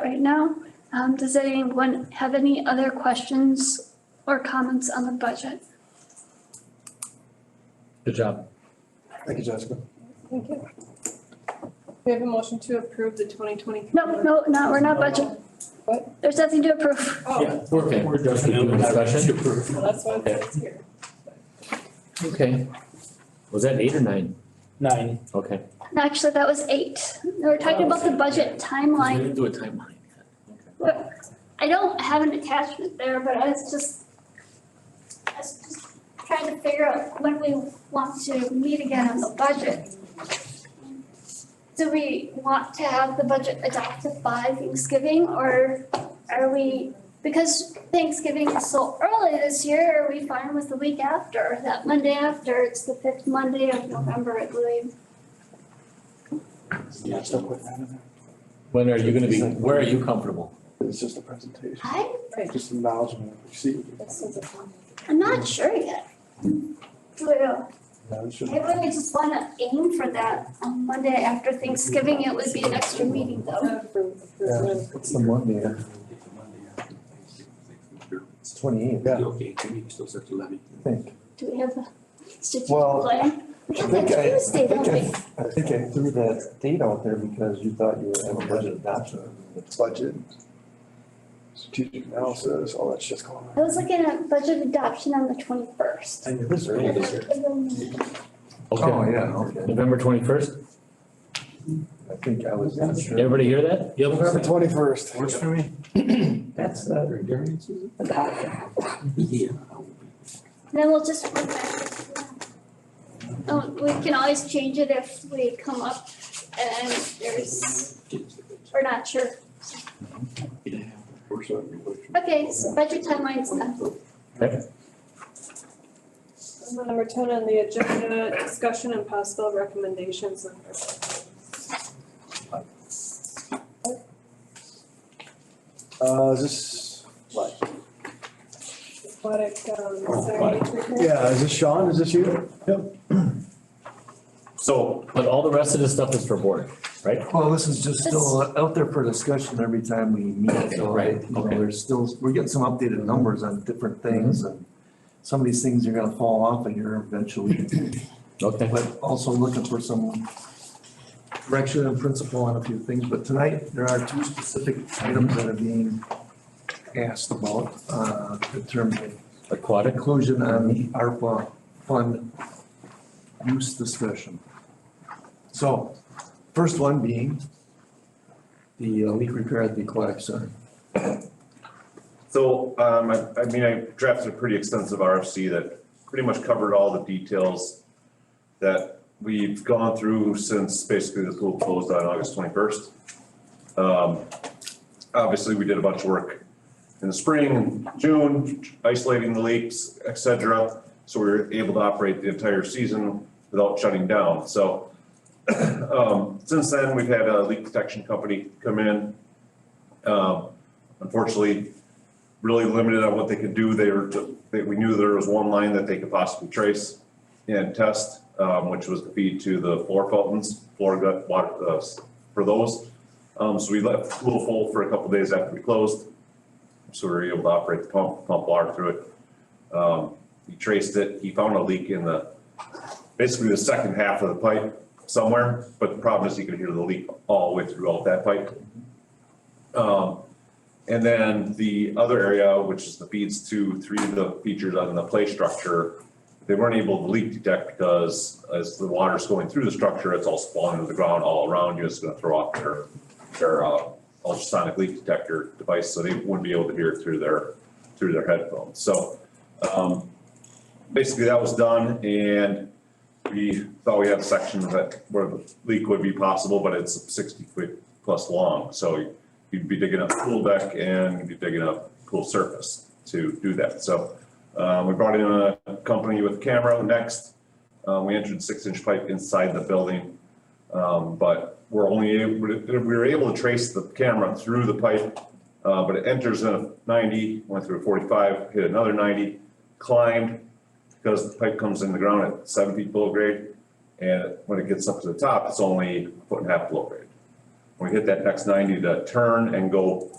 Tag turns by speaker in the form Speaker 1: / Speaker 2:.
Speaker 1: right now. Um, does anyone have any other questions or comments on the budget?
Speaker 2: Good job.
Speaker 3: Thank you, Jessica.
Speaker 4: Thank you. We have a motion to approve the twenty twenty.
Speaker 1: No, no, no, we're not budget.
Speaker 4: What?
Speaker 1: There's nothing to approve.
Speaker 4: Oh,
Speaker 2: Okay.
Speaker 3: We're just
Speaker 2: Any other discussion?
Speaker 4: well, that's why it's here.
Speaker 2: Okay. Was that eight or nine?
Speaker 5: Nine.
Speaker 2: Okay.
Speaker 1: Actually, that was eight. We were talking about the budget
Speaker 2: We
Speaker 1: timeline.
Speaker 2: didn't do a timeline.
Speaker 1: I don't have an attachment there, but I was just, I was just trying to figure out when we want to meet again on the budget. Do we want to have the budget adopted by Thanksgiving or are we, because Thanksgiving is so early this year, are we fine with the week after, that Monday after? It's the fifth Monday of November, I believe.
Speaker 3: Yeah, so put that in there.
Speaker 2: When are you gonna be, where are you comfortable?
Speaker 3: It's just a presentation,
Speaker 1: I,
Speaker 3: just acknowledgement. You See,
Speaker 4: This is a-
Speaker 1: I'm not sure yet. Do we-
Speaker 3: no, it's just.
Speaker 1: I really just wanna aim for that on Monday after Thanksgiving, it would be an extra meeting though.
Speaker 4: Approve.
Speaker 3: It's the Monday, uh, it's twenty-eight, yeah,
Speaker 6: Okay, to me, it starts at eleven.
Speaker 3: I think.
Speaker 1: Do we have a strategic
Speaker 3: Well,
Speaker 1: plan? We
Speaker 3: I
Speaker 1: got that
Speaker 3: think I, I
Speaker 1: Tuesday,
Speaker 3: think
Speaker 1: don't we?
Speaker 3: I, I think I threw that date out there because you thought you were having a budget adoption. It's Budget, strategic analysis, all that shit's going
Speaker 1: I was looking at budget adoption on the twenty-first.
Speaker 3: And this
Speaker 1: Oh,
Speaker 3: early this year.
Speaker 7: Oh,
Speaker 2: Okay.
Speaker 3: Oh, yeah, okay.
Speaker 2: November twenty-first?
Speaker 3: I think I was.
Speaker 2: Everybody hear that?
Speaker 3: November twenty-first.
Speaker 6: Works for me. uh,
Speaker 5: That's uh, the.
Speaker 6: Yeah.
Speaker 1: Then we'll just. work backwards from that. Oh, we can always change it if we come up and there's, we're not sure.
Speaker 6: Works on your way.
Speaker 1: Okay, so budget timeline's uh, done.
Speaker 4: Number ten on the agenda, discussion and possible recommendations. on our-
Speaker 3: Uh, is this, what?
Speaker 4: Aquatic, um, sorry, treatment.
Speaker 3: Yeah, is this Sean? Is this you?
Speaker 2: So, but all the rest of the stuff is for board.
Speaker 7: Well, this is just still out there for discussion every time we meet, so
Speaker 2: Right,
Speaker 7: you know,
Speaker 2: okay. Mm-hmm.
Speaker 7: there's still, we're getting some updated numbers on different things and some of these things are gonna fall off of here eventually,
Speaker 2: Okay.
Speaker 7: but also looking for some direction and principle on a few things, but tonight, there are two specific items that are being asked about, uh, in terms of
Speaker 2: Aquatic?
Speaker 7: inclusion on the ARPA fund use discussion. So, first one being the uh, leak repair at the aquatic center.
Speaker 8: So, um, I, I mean, I drafted a pretty extensive RFC that pretty much covered all the details that we've gone through since basically the school closed on August twenty-first. Um, obviously, we did a bunch of work in the spring, June, isolating the leaks, et cetera. So we were able to operate the entire season without shutting down. So, um, since then, we've had a leak protection company come in. Um, unfortunately, really limited on what they could do. They were, they, we knew there was one line that they could possibly trace and test, um, which was the feed to the floor fountains, floor gut water, uh, for those. Um, so we left a little full for a couple days after we closed. So we were able to operate the pump, pump water through it. Um, he traced it, he found a leak in the, basically the second half of the pipe somewhere, but the problem is he could hear the leak all the way throughout that pipe. Um, and then the other area, which is the feeds to three of the features on the play structure, they weren't able to leak detect because as the water's going through the structure, it's all spawning to the ground all around you. It's gonna throw off their, their uh, ultrasonic leak detector device, so they wouldn't be able to hear it through their, through their headphones. So, um, basically that was done and we thought we had sections that where the leak would be possible, but it's sixty foot plus long. So you'd be digging up pool deck and you'd be digging up pool surface to do that. So uh, we brought in a company with camera next. Uh, We entered six-inch pipe inside the building. Um, But we're only, able we were able to trace the camera through the pipe, uh, but it enters in a 90, went through a 45, hit another 90, climbed, because the pipe comes in the ground at seven feet below grade. And when it gets up to the top, it's only a foot and a half below grade. When we hit that next ninety, to turn and go